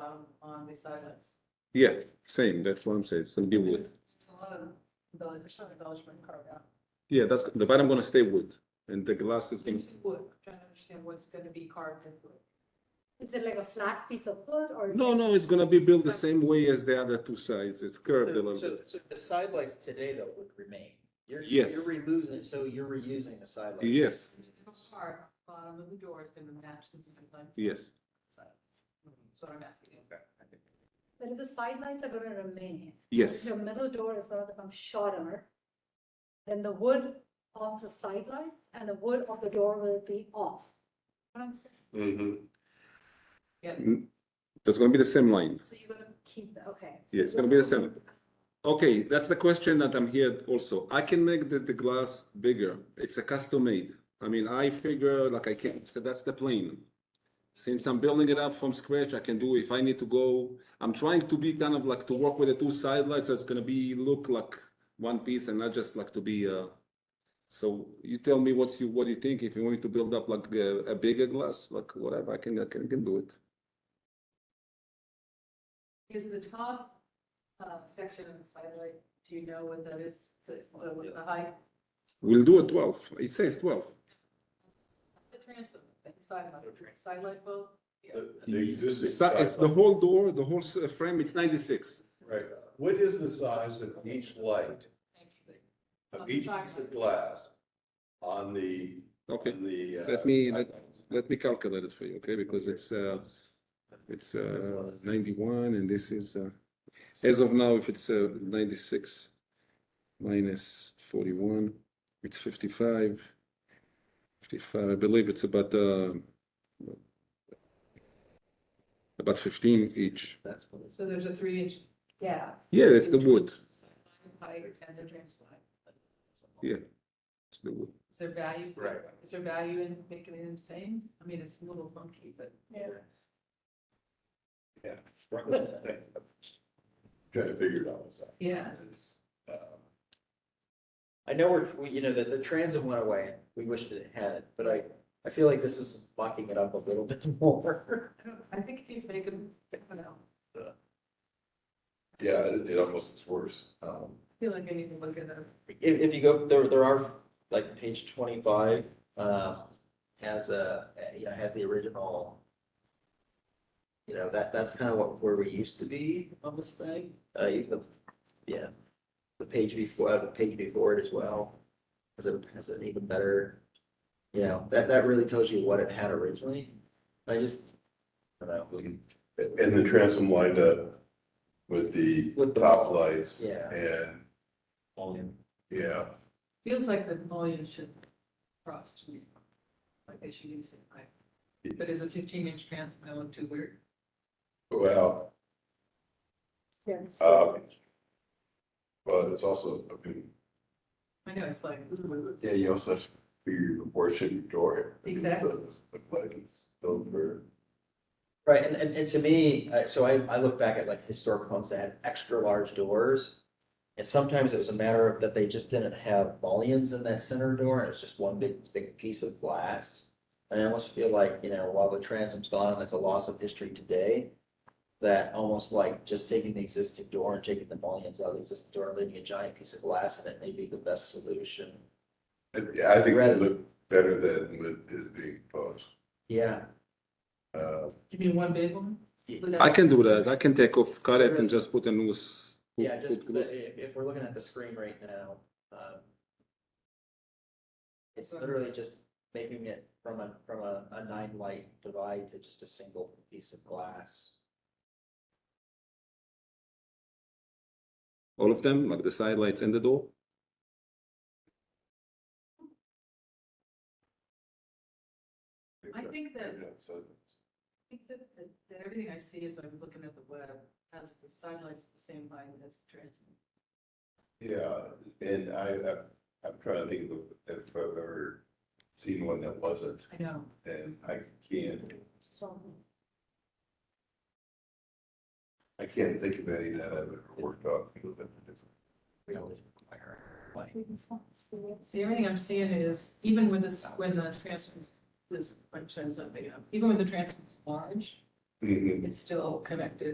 be um, silence. Yeah, same, that's what I'm saying, so be wood. There's a lot of embellish, there's some embellishment carved out. Yeah, that's, the bottom gonna stay wood, and the glass is gonna, Using wood, trying to understand what's gonna be carved in wood. Is it like a flat piece of wood or? is no, it- no, it's gonna be built the same way as the other two sides, it's curved a So, little so- bit. so the side lights today though would remain. You're, Yes. you're reusing, so you're reusing the side lights. Yes, The part, bottom of the door is gonna match the zip lines. yes, Silence. That's what I'm asking you. Okay. But if the side lights are gonna remain. yes, Your middle door is gonna become shorter. Then the wood of the side lights and the wood of the door will be off. What I'm saying, Yep. Mm-hmm. that's gonna be the same line, so you're gonna keep, the- okay. yeah, it's gonna be the same. Okay, that's the question that I'm here also, I can make the, the glass bigger, it's a custom made. I mean, I figure like I can, so that's the plane. Since I'm building it up from scratch, I can do, if I need to go, I'm trying to be kind of like to work with the two sidelights, so it's gonna be, look like one piece and not just like to be, uh. So you tell me what's you, what do you think, if you want me to build up like a, a bigger glass, like whatever, I can, I can, can do it. Is the top, uh, section of the sidelight, do you know what that is, the, the the height? We'll do a twelve, it says twelve. The transom, the sidelight, sidelight bulb? The the existing. It's, it's the sideline. whole door, the whole s- uh, frame, it's ninety-six. Right. What is the size of each light, Thank you. of each piece of glass on the, Okay, on the? uh, Let me- let- sidelines? let me calculate it for you, okay, because it's, uh, it's, uh, ninety-one and this is, uh, as of now, if it's, uh, ninety-six minus forty-one, it's fifty-five. Fifty-five, I believe it's about, uh, about fifteen each. That's what it's. So there's a three inch gap. Yeah, it's the wood, Sideline Height and the transom height. yeah, it's the wood. Is there value? Is there value in making them same? I mean, it's a little funky, but. Yeah. Trying to figure it out myself. Yeah. It's, uh, I know we're, we- you know, that the transit went away. We wished it had, but I, I feel like this is locking it up a little bit more. I don't, I think if you make them, I don't know, Yeah, it it almost is worse. Um, I feel like I need to look at them. If, if you go, there, there are, like, page twenty-five, um, has a, you know, has the original. You know, that, that's kind of what, where we used to be on this thing, uh, you- the, yeah. The page before, uh, the page before it as well, has a, has an even better, you know, that, that really tells you what it had originally. I just, I don't know, And the transom lined up with the With the- top lights yeah. and, yeah, Feels like the mullion should cross to me. Like they should use it, like, but is a fifteen inch transom gonna look too weird? well, Yes. Uh, um, well, it's also, I mean, I know, it's like, ooh, yeah, you also have to figure your proportion door. Exactly. Look like it's built for. Right, and, and, and to me, uh, so I, I look back at like historic homes that had extra large doors. And sometimes it was a matter of that they just didn't have mullions in that center door, and it's just one big thick piece of glass. And I almost feel like, you know, while the transom's gone, and that's a loss of history today. That almost like just taking the existing door and taking the mullions out of the existing door, and leaving a giant piece of glass in it may be the best solution. Yeah, I think Rather- it looked better than what is being proposed. Yeah, Uh, you mean one big one? Would I can do that, I can take off, cut it and just put a noose. Yeah, just, put the- loose- if, if we're looking at the screen right now, um. It's literally just making it from a, from a, a nine light divide to just a single piece of glass. All of them, like the side lights and the door? I think that- So, I think that, that, that everything I see as I'm looking at the web has the sidelights the same height as the transom. Yeah, and I, I'm- I'm trying to think of if I've ever seen one that wasn't, I know. and I can't, So, I can't think of any that I've ever worked on. We always require a light. we can stop. See, everything I'm seeing is, even when this, when the transom's, this, I'm showing something up, even when the transom's large, Mhm. it's still connected